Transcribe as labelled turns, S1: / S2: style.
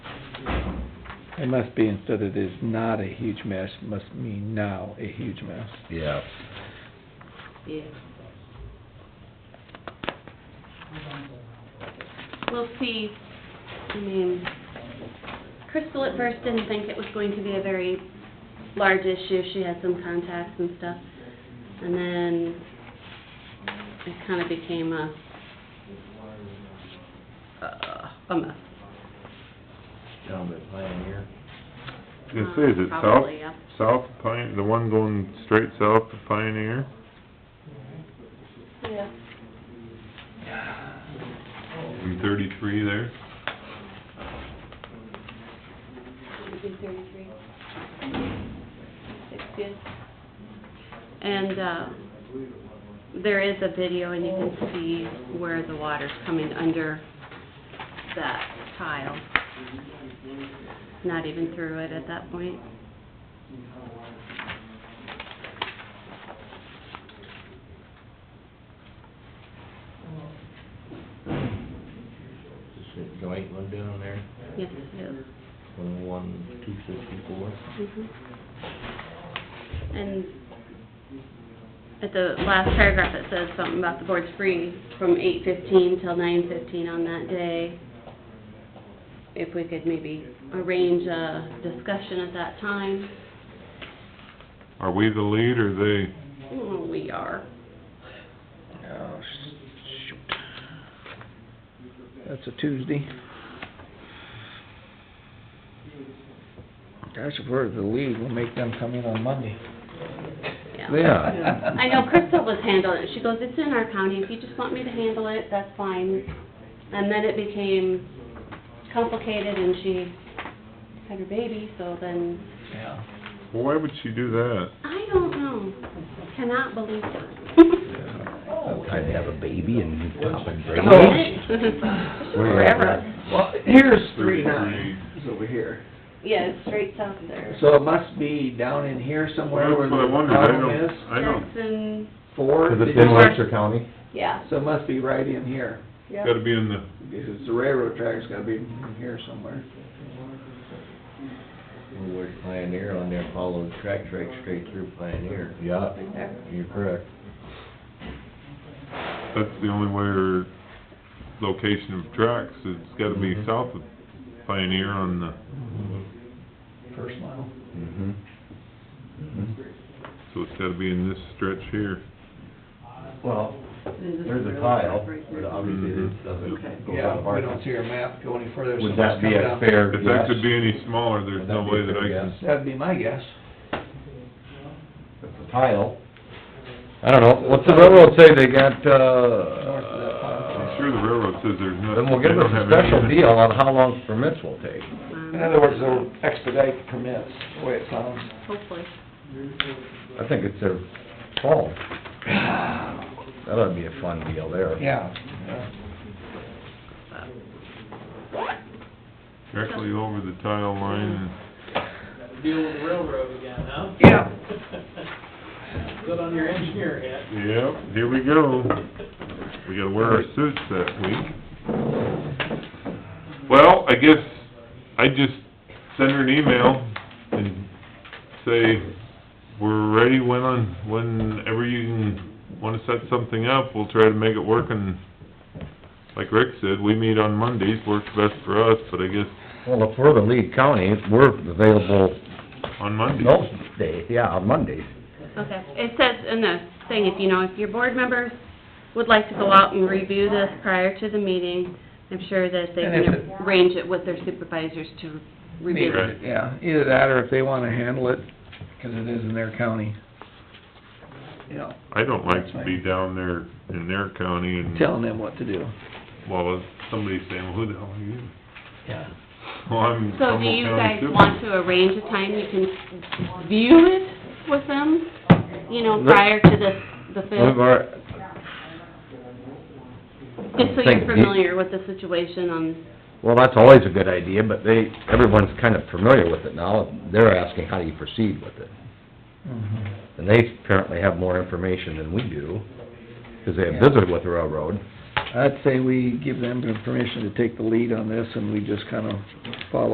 S1: It must be instead of it is not a huge mess, must mean now a huge mess.
S2: Yeah.
S3: Yeah. We'll see. I mean, Crystal at first didn't think it was going to be a very large issue. She had some contacts and stuff. And then it kind of became a, a mess.
S4: Down by Pioneer.
S5: This is, it's south,
S3: Uh, Probably, yeah.
S5: south of Pioneer, the one going straight south of Pioneer?
S3: Yeah.
S5: From thirty-three there?
S3: thirty-three. It's good. And, uh, there is a video and you can see where the water's coming under that tile. Not even through it at that point.
S4: Is it the light one down there?
S3: Yes, it is.
S4: One oh one, two sixty-four?
S3: Mhm. And at the last paragraph, it says something about the board's free from eight fifteen till nine fifteen on that day. If we could maybe arrange a discussion at that time,
S5: Are we the lead or they?
S3: Mm, we are.
S1: Oh, shoot. That's a Tuesday. Gosh, if we're the lead, we'll make them come in on Monday.
S2: Yeah.
S3: I know Crystal was handling it. She goes, it's in our county. If you just want me to handle it, that's fine. And then it became complicated and she had her baby, so then
S1: Yeah.
S5: Well, why would she do that?
S3: I don't know. Cannot believe that.
S2: I'd have a baby and pop and break.
S1: Oh.
S3: Forever.
S1: Well, here's
S5: three nine,
S1: it's over here.
S3: Yeah, it's straight south of there.
S1: So it must be down in here somewhere where
S5: That's what I
S1: the
S5: wondered, I
S1: problem
S5: don't,
S1: is.
S5: I don't,
S3: Jackson,
S1: Four,
S2: Cause
S1: did
S2: it's
S1: you
S2: in
S1: say?
S2: Webster County.
S3: yeah.
S1: So it must be right in here.
S3: Yep.
S5: gotta be in the,
S1: Because it's the railroad track's gotta be in here somewhere.
S4: Well, where's Pioneer on there, follow the tracks right straight through Pioneer.
S2: Yeah.
S3: Right there.
S4: You're correct.
S5: that's the only way or location of tracks, it's gotta be
S2: Mhm.
S5: south of Pioneer on the,
S1: First mile.
S2: Mm-hmm.
S6: Mm-hmm.
S5: so it's gotta be in this stretch here.
S2: Well, there's a tile, but obviously
S6: Mm-hmm.
S2: it doesn't go
S1: Yeah,
S2: that
S1: we don't
S2: far.
S1: see your map go any further. so
S2: Would that
S1: it's
S2: be
S1: come
S2: a
S1: down.
S2: fair
S5: If
S2: guess?
S5: that could be any smaller, there's
S2: Would
S5: no
S2: that be
S5: way
S2: a
S5: that I
S2: fair
S5: can,
S2: guess?
S1: That'd be my guess.
S2: It's a tile.
S6: I don't know, what's the railroad say they got,
S1: North of that
S6: uh,
S1: pond.
S5: I'm sure the railroad says there's nothing.
S6: then we'll give us a special deal on how long permits will take.
S3: Um,
S1: In other words, they'll expedite permits, the way it sounds.
S3: Hopefully.
S6: I think it's their call. That ought to be a fun deal there.
S1: Yeah, yeah.
S5: Directly over the tile line,
S7: deal with the railroad again, huh?
S1: Yeah.
S7: Good on your engineer hat.
S5: yep, here we go. We gotta wear our suits that week. Well, I guess I just send her an email and say, we're ready when on, whenever you can, wanna set something up, we'll try to make it work and, like Rick said, we meet on Mondays, works best for us, but I guess
S6: Well, if we're the lead county, we're available
S5: on Mondays.
S6: most days, yeah, on Mondays.
S3: Okay. It says in the thing, if you know, if your board members would like to go out and review this prior to the meeting, I'm sure that they
S1: And if
S3: can
S1: it-
S3: arrange it with their supervisors to review it.
S5: Right.
S1: Yeah, either that or if they wanna handle it, 'cause it is in their county. You know,
S5: I don't like to be down there in their county and,
S1: telling them what to do.
S5: well, somebody's saying, who the hell are you?
S1: Yeah.
S5: Well, I'm
S3: So do
S5: Humboldt
S3: you
S5: County
S3: guys
S5: too.
S3: want to arrange a time you can view it with them, you know, prior to the, the
S6: We've
S3: fifth?
S6: already,
S3: Just so
S6: Thank
S3: you're
S6: you.
S3: familiar with the situation on,
S6: Well, that's always a good idea, but they, everyone's kind of familiar with it now. They're asking, how do you proceed with it?
S1: Mhm.
S6: And they apparently have more information than we do, because they
S1: Yeah.
S6: have visited with the railroad.
S1: I'd say we give them permission to take the lead on this and we just kinda follow